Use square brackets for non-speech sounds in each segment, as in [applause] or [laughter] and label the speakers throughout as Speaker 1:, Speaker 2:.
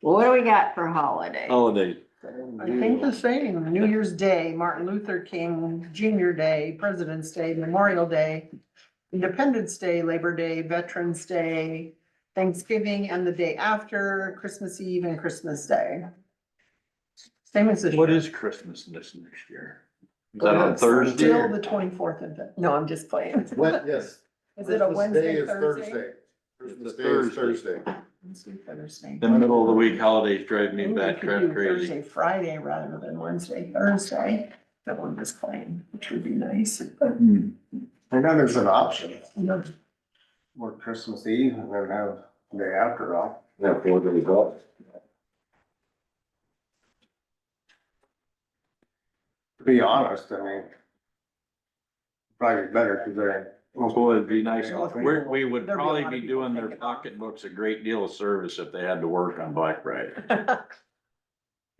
Speaker 1: What do we got for holiday?
Speaker 2: holiday.
Speaker 3: I think the same, New Year's Day, Martin Luther King Junior Day, President's Day, Memorial Day, Independence Day, Labor Day, Veterans Day, Thanksgiving and the day after, Christmas Eve and Christmas Day. Same as this.
Speaker 2: What
Speaker 3: year.
Speaker 2: is Christmas this next year? Is that on Thursday?
Speaker 3: Till
Speaker 2: or-
Speaker 3: the twenty-fourth of, the- no, I'm just playing. [laughs]
Speaker 4: What, yes.
Speaker 3: Is it a
Speaker 4: Christmas Day
Speaker 3: Wednesday,
Speaker 4: is
Speaker 3: Thursday?
Speaker 4: Christmas Day is Thursday.
Speaker 3: Wednesday, Thursday.
Speaker 2: The middle of the week holidays drive me
Speaker 3: Maybe we
Speaker 2: back
Speaker 3: could do
Speaker 2: crazy.
Speaker 3: Thursday, Friday rather than Wednesday, Thursday, that one was playing, which would be nice, but.
Speaker 2: Hmm.
Speaker 5: And then there's an option,
Speaker 3: No,
Speaker 5: work Christmas Eve and then have the day after off.
Speaker 4: Yeah, four days off.
Speaker 5: To be honest, I mean, probably better because
Speaker 2: Boy, it'd be nice.
Speaker 3: Well, if we-
Speaker 2: We're, we
Speaker 3: There'd
Speaker 2: would
Speaker 3: be a
Speaker 2: probably
Speaker 3: lot of
Speaker 2: be
Speaker 3: people
Speaker 2: doing their
Speaker 3: thinking about it.
Speaker 2: pocketbooks a great deal of service if they had to work on
Speaker 3: [laughs]
Speaker 2: Black Friday.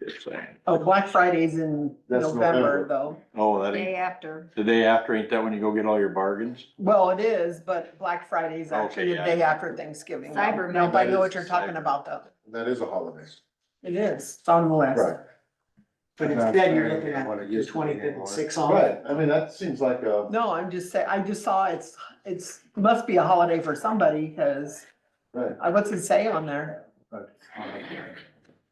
Speaker 2: Just saying.
Speaker 3: Oh, Black Friday's in
Speaker 4: That's
Speaker 3: November
Speaker 4: November.
Speaker 3: though.
Speaker 2: Oh, that ain't,
Speaker 1: Day after.
Speaker 2: the day after, ain't that when you go get all your bargains?
Speaker 3: Well, it is, but Black Friday's actually the
Speaker 2: Okay, yeah.
Speaker 3: day after Thanksgiving. though.
Speaker 1: Cyber
Speaker 3: Nope, I
Speaker 4: Monday
Speaker 3: know
Speaker 4: is
Speaker 3: what you're talking
Speaker 2: Cyber.
Speaker 3: about though.
Speaker 4: That is a holiday.
Speaker 3: It is, it's on the list.
Speaker 4: Right.
Speaker 6: But instead, you're looking at the twenty-fifth and six on it.
Speaker 4: Right, I mean, that seems like a,
Speaker 3: No, I'm just saying, I just saw it's, it's, must be a holiday for somebody, cause
Speaker 4: right,
Speaker 3: I, what's it say on there? Is it-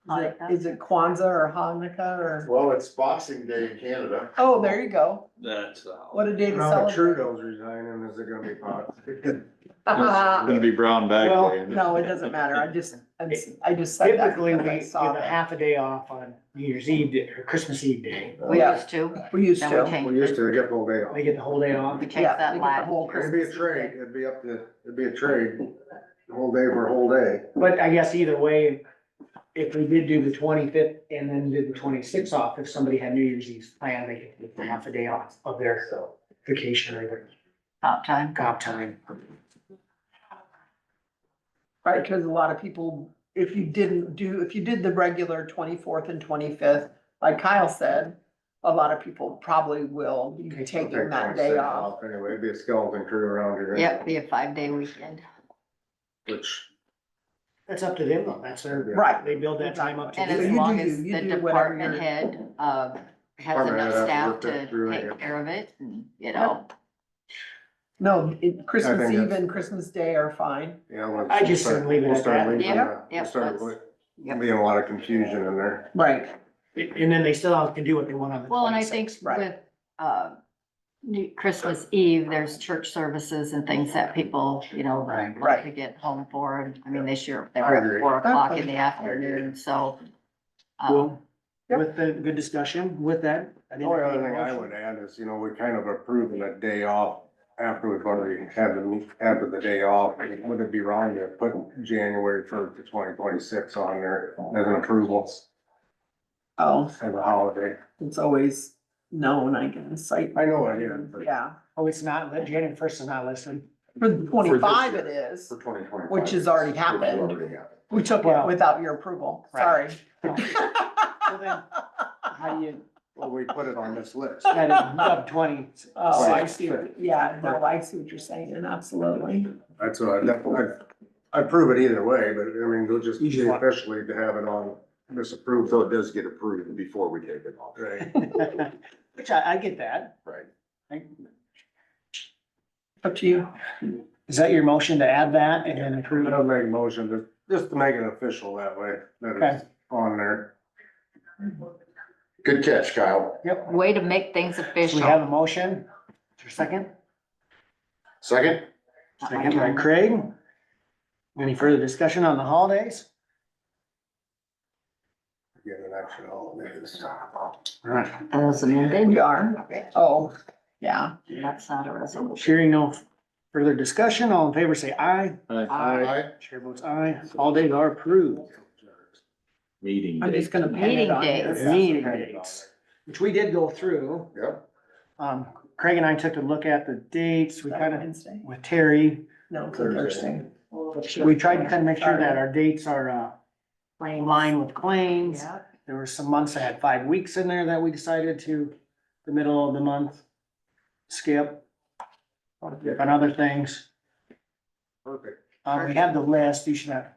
Speaker 1: Hanukkah.
Speaker 3: Is it Kwanzaa or Hanukkah or,
Speaker 4: well, it's Boxing Day in Canada.
Speaker 3: oh, there you go.
Speaker 2: That's. uh,
Speaker 3: What a day to
Speaker 5: Now that
Speaker 3: celebrate.
Speaker 5: Trudeau's resigning, is it gonna be pot?
Speaker 3: [laughs]
Speaker 2: It's gonna be brown bag.
Speaker 6: Well,
Speaker 2: day.
Speaker 3: No, it doesn't matter. I just, I'm s- I just said that
Speaker 6: Typically, we
Speaker 3: because I
Speaker 6: give
Speaker 3: saw
Speaker 6: a
Speaker 3: that.
Speaker 6: half a day off on New Year's Eve day- or Christmas Eve day.
Speaker 1: We
Speaker 3: Yeah.
Speaker 1: used to,
Speaker 3: We used
Speaker 1: then
Speaker 3: to.
Speaker 1: we changed.
Speaker 5: We used to
Speaker 1: it.
Speaker 5: get full day off.
Speaker 6: They get the whole day off.
Speaker 1: We
Speaker 3: Yeah,
Speaker 1: changed
Speaker 3: we
Speaker 1: that
Speaker 3: get the
Speaker 1: last
Speaker 3: whole
Speaker 1: year.
Speaker 5: It'd be a trade, it'd be up to, it'd be a trade, the whole day for a whole day.
Speaker 6: But I guess either way, if we did do the twenty-fifth and then did the twenty-sixth off, if somebody had New Year's Eve planned, they could get half a day off of their vacation or their
Speaker 1: About time.
Speaker 6: comp time.
Speaker 3: Right, because a lot of people, if you didn't do, if you did the regular twenty-fourth and twenty-fifth, like Kyle said, a lot of people probably will be
Speaker 6: Okay.
Speaker 3: taking
Speaker 5: Take
Speaker 3: that
Speaker 5: 26
Speaker 3: day off.
Speaker 5: Anyway, it'd be a skeleton crew around here.
Speaker 1: Yep, be a five-day weekend.
Speaker 5: Which,
Speaker 6: That's up to them though. That's their,
Speaker 3: Right,
Speaker 6: they build that time up to
Speaker 1: And
Speaker 3: So
Speaker 1: as
Speaker 3: you
Speaker 6: do.
Speaker 3: do
Speaker 1: long
Speaker 3: you,
Speaker 1: as
Speaker 3: you
Speaker 1: the
Speaker 3: do whatever
Speaker 1: department
Speaker 3: you're-
Speaker 1: head, uh,
Speaker 5: Department
Speaker 1: has
Speaker 5: head
Speaker 1: enough
Speaker 5: has to
Speaker 1: staff
Speaker 5: work that
Speaker 1: to
Speaker 5: through, I
Speaker 1: take
Speaker 5: guess.
Speaker 1: care of it, and, you know,
Speaker 3: no, it-
Speaker 5: I
Speaker 3: Christmas
Speaker 5: think
Speaker 3: Eve
Speaker 5: that's-
Speaker 3: and Christmas Day are fine.
Speaker 5: yeah. let's-
Speaker 6: I just said leave it
Speaker 5: we'll
Speaker 6: at
Speaker 5: start
Speaker 6: that.
Speaker 5: leaving
Speaker 1: Yeah,
Speaker 5: that.
Speaker 1: yeah,
Speaker 5: We'll start
Speaker 1: that's-
Speaker 5: with-
Speaker 1: yep.
Speaker 5: Being a lot of confusion in there.
Speaker 3: Right,
Speaker 6: And then they still can do what they want on the
Speaker 1: Well, and I think
Speaker 6: twenty-sixth.
Speaker 3: right.
Speaker 1: with, uh, New- Christmas Eve, there's church services and things that people, you know,
Speaker 6: Right.
Speaker 1: want
Speaker 3: Right.
Speaker 1: to get home for. And I mean, this year, they
Speaker 5: I
Speaker 1: were
Speaker 5: agree.
Speaker 1: at four o'clock in
Speaker 3: agree.
Speaker 1: the afternoon, so. uh,
Speaker 6: Well,
Speaker 3: Yep.
Speaker 6: with the good discussion with that. I
Speaker 5: Oh, The
Speaker 6: didn't
Speaker 5: only
Speaker 6: have
Speaker 5: other
Speaker 6: any
Speaker 5: thing I
Speaker 6: motion.
Speaker 5: would add is, you know, we kind of approving a day off after we've already had the, meet- after the day off. Would it be wrong to put January first to twenty twenty-six on there as an approval
Speaker 3: oh,
Speaker 5: as a holiday?
Speaker 3: it's always known, I guess, I,
Speaker 5: I know I did, but
Speaker 3: yeah.
Speaker 6: Oh, it's not, lit- January first is not listed.
Speaker 3: For the twenty-five
Speaker 5: year.
Speaker 3: it is,
Speaker 5: for twenty twenty-five.
Speaker 3: Which has already happened. we took it
Speaker 6: Well-
Speaker 3: without your approval, sorry. [laughs]
Speaker 6: Right. [laughs] So then, how do you,
Speaker 5: Well, we put it on this list.
Speaker 6: that is sub twenty,
Speaker 3: Oh, I
Speaker 5: Right.
Speaker 3: see, what- yeah, no, I see what you're saying, absolutely.
Speaker 5: That's what I, that- I, I prove it either way, but I mean, they'll just
Speaker 6: Usually.
Speaker 5: officially to have it on this approved.
Speaker 4: So it does get approved before we take it off.
Speaker 5: Right.
Speaker 6: [laughs] which I, I get that.
Speaker 4: Right.
Speaker 6: I-
Speaker 3: Up to you.
Speaker 6: Is that your motion to add that and then approve it?
Speaker 5: I'll make a motion to, just to make it official that way, that it's on there.
Speaker 4: Good catch, Kyle.
Speaker 6: Yep.
Speaker 1: Way to make things
Speaker 6: We have
Speaker 1: official.
Speaker 6: a motion. Is there a second?
Speaker 4: Second?
Speaker 1: Not my
Speaker 6: Second by
Speaker 1: turn.
Speaker 6: Craig. Any further discussion on the holidays?
Speaker 5: Get an extra holiday this time.
Speaker 6: All right.
Speaker 1: As amended,
Speaker 3: We are, oh, yeah.
Speaker 1: that's not a resolution.
Speaker 6: Hearing no further discussion, all in favor say aye.
Speaker 4: Aye.
Speaker 6: Chair votes aye. Holidays are approved.
Speaker 2: Meeting
Speaker 3: I'm
Speaker 2: day.
Speaker 3: just gonna pin it
Speaker 1: Meeting
Speaker 3: on
Speaker 1: days.
Speaker 3: here.
Speaker 6: Meeting dates, which we did go through.
Speaker 4: Yep.
Speaker 6: Um, Craig and I took a look at the dates. We kind of,
Speaker 3: Wednesday?
Speaker 6: with Terry,
Speaker 3: No, it's a Thursday.
Speaker 6: we tried to kind of make sure that our dates are, uh, in line with claims.
Speaker 3: Yeah,
Speaker 6: There were some months that had five weeks in there that we decided to, the middle of the month, skip. And other things.
Speaker 5: Perfect.
Speaker 6: Um, we have the list, you should have,